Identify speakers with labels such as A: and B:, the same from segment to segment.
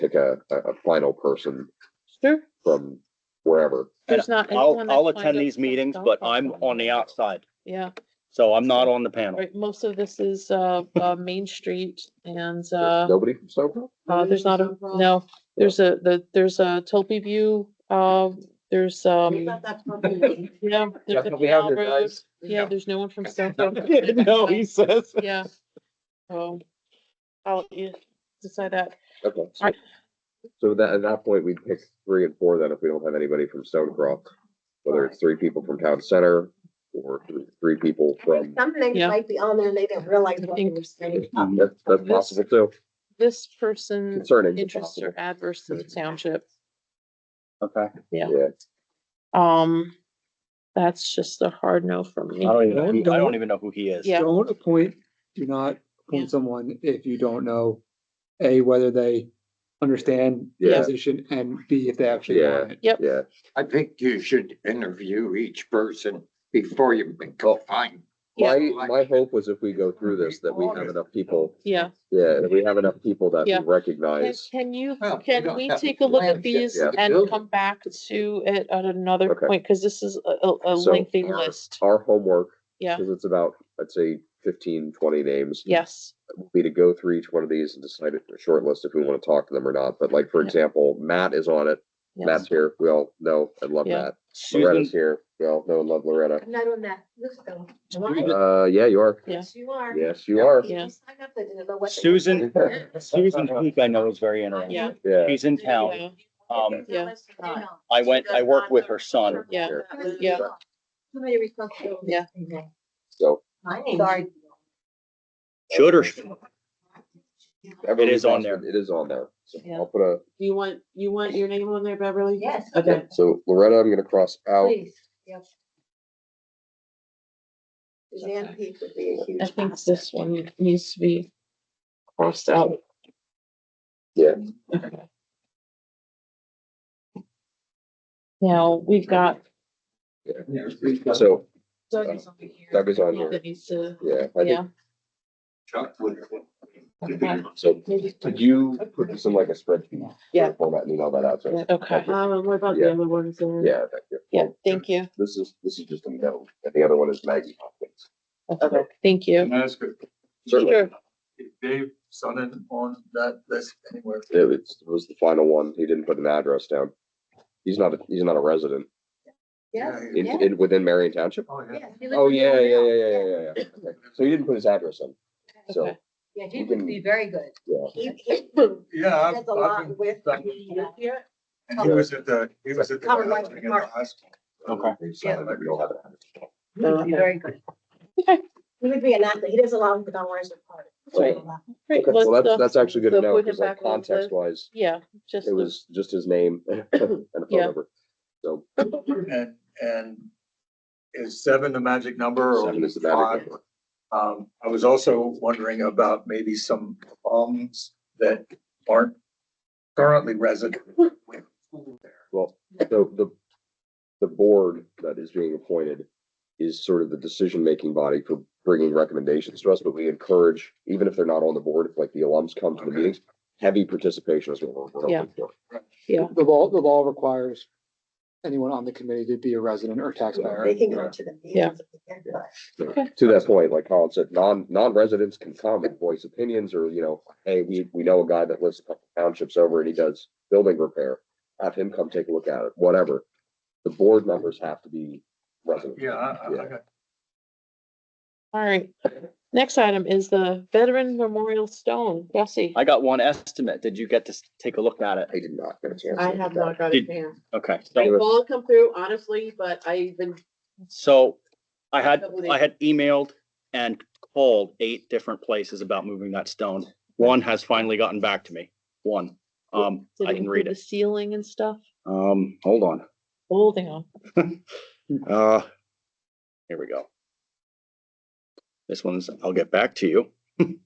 A: like a, a, a final person
B: Sure,
A: from wherever.
B: there's not. anyone
C: I'll,
B: that's
C: I'll
B: lined
C: attend
B: up
C: these
B: for
C: meetings,
B: golf
C: but
B: club.
C: I'm on the outside,
B: Yeah,
C: so I'm not on the panel.
B: right, most of this is, uh, uh, Main Street and, uh,
A: Nobody from Snowball?
B: uh, there's not a, no, there's a, the, there's a Tulpe View, uh, there's, um, yeah. there's a canal road. Yeah, there's no one from Stonebrook.
C: No, he says.
B: Yeah. So I'll yeah, decide that.
A: Okay. so-
B: Alright.
A: So that, at that point, we'd pick three and four then if we don't have anybody from Stonecroft, whether it's three people from town center or th- three people from,
D: Some things
B: Yeah.
D: might be on there and they didn't realize what they were saying.
A: that's, that's possible too,
B: This person
A: concerning. but
B: interests
A: possible.
B: or adverse to the township.
C: Okay.
A: Yeah,
B: Um, that's just a hard no for
C: I
B: me.
C: don't even, know
E: Don't-
C: who- I don't even know who he is.
B: Yeah.
E: Don't appoint, do not
B: Yeah.
E: appoint someone if you don't know, A, whether they understand the
A: Yeah.
E: position, and B, if they actually want it.
A: yeah,
F: I think you should interview each person before you go find.
A: my,
B: Yeah.
A: my hope was if we go through this, that we have enough people,
B: Yeah.
A: yeah, that we have enough people that we
B: Yeah. Can-
A: recognize.
B: Can you,
F: Well, we
B: can
F: don't
B: we
F: have
B: take a
F: to
B: look at
F: land yet.
B: these
A: Yeah.
B: and come back to it at another
A: Okay.
B: point? Because this is a- a, a
A: So
B: lengthy
A: our-
B: list.
A: Our homework.
B: Yeah.
A: Cause it's about, I'd say 15, 20 names.
B: Yes,
A: would Be to go through each one of these and decide a short list if we want to talk to them or not. But like, for
B: Yeah.
A: example, Matt is on it. Matt's
B: yes.
A: here. We all know and love
B: Yeah.
A: Matt. Loretta's
C: Susan,
A: here. We all know and love Loretta.
D: I'm not on that list though. Am I?
A: Uh, yeah, you are.
B: Yeah.
D: Yes, you are.
A: Yes, you are.
B: Yeah.
D: You signed up, they didn't know what they were
C: Susan-
D: saying.
C: Susan Peak, I know is very interesting.
B: Yeah.
A: Yeah.
C: She's in town.
B: Yeah.
C: Um,
B: Yeah.
C: I went, I worked with her son.
B: Yeah.
A: Yeah.
D: So many responsibilities.
B: Yeah.
A: So
D: My name's already.
C: Should or, sh-
A: Beverly
C: is on
A: Boston,
C: there.
A: It is on there. So
B: Yeah.
A: I'll put a,
B: You want, you want your name on there, Beverly?
D: Yes.
B: Okay.
A: so Loretta, I'm gonna cross
B: oh.
A: out.
D: Please, yep. Suzanne Peak would be a huge.
B: I think this one needs to be crossed out.
A: Yeah.
B: Okay. Now, we've got.
A: So
B: Doug is over here.
A: Doug is on here.
B: That needs to,
A: Yeah. I think-
B: yeah.
F: Chuck would-
A: So could you put this in like a spreadsheet?
B: Yeah.
A: Format and email that out to us?
B: Okay,
G: Um, what about
A: Yeah.
G: the other ones? uh,
A: Yeah, thank you.
B: yeah, thank you.
A: This is, this is just a no, and the other one is Maggie Hopkins.
B: Okay, thank you.
H: Can I ask if
A: Certainly,
B: Sure.
H: if Dave Sonnen on that list anywhere?
A: it was, it was the final one, he didn't put an address down. He's not, a he's not a resident,
D: Yes,
A: in,
D: Yeah.
A: in, within Marion Township?
H: Oh, yeah.
D: yes. he lives
A: Oh,
D: in
A: yeah,
D: town
A: yeah, yeah,
D: now.
A: yeah, yeah, yeah, yeah, okay, so he didn't put his address in, so,
B: Okay.
D: Yeah, he would be very good.
A: yeah,
D: He, he
H: Yeah, I've,
D: does a
H: I've
D: lot
H: been,
D: with.
H: I've
D: the, uh,
H: and he was at the, he was at the.
D: Covered by
H: gathering at the
D: Mark.
H: high school.
C: okay.
A: they decided that we don't have an address.
D: He would be very good.
B: Okay.
D: He would be an athlete. He does a lot with the Don Warren's part.
B: Right.
A: Okay, Well, that's, that's actually good to
B: so
A: know,
B: uh, put him
A: because like
B: back on the list.
A: context wise,
B: Yeah, just,
A: it was just his name and a phone
B: Yeah.
A: number. So,
H: And, and is seven the magic number or
A: Seven is the magic
H: five?
A: number.
H: Um, I was also wondering about maybe some alums that aren't currently resident. with school there.
A: well, so the, the board that is being appointed is sort of the decision-making body for bringing recommendations to us, but we encourage, even if they're not on the board, if like the alums come to the
H: Okay.
A: meetings, heavy participation is what we're- we're
B: Yeah.
A: hoping for.
B: Yeah.
E: The law, the law requires anyone on the committee to be a resident or taxpayer.
D: They can go to the
B: Yeah.
D: meetings. if they can,
A: So,
B: Okay.
A: To that point, like Colin said, non, non-residents can come and voice opinions or, you know, hey, we, we know a guy that lives a couple townships over and he does building repair. Have him come take a look at it, whatever. The board members have to be residents.
H: Yeah, I, I I
A: Yeah.
H: got
B: all right. Next item is the Veteran Memorial Stone. Bessie,
C: I got one estimate. Did you get to s- take a look at it?
A: I did not get a chance.
G: I
A: to
G: have
A: look at
G: not got a
C: Did-
G: chance.
C: Okay,
G: I
C: so,
G: will come through honestly, but I've been,
C: so I had,
G: Couple days.
C: I had emailed and called eight different places about moving that stone. One has finally gotten back to me, one. Um,
B: did
C: I
B: it
C: can read
B: include the
C: it.
B: ceiling and stuff?
C: Um, hold on.
B: Holding on.
C: Uh, here we go. This one's, I'll get back to you.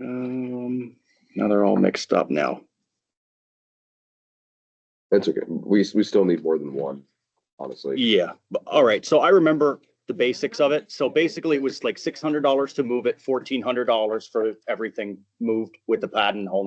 C: Um, now they're all mixed up now.
A: it. That's okay. We, we still need more than one, honestly.
C: Yeah, but, all right, so I remember the basics of it. So basically it was like six hundred dollars to move it, fourteen hundred dollars for everything moved with the pad and whole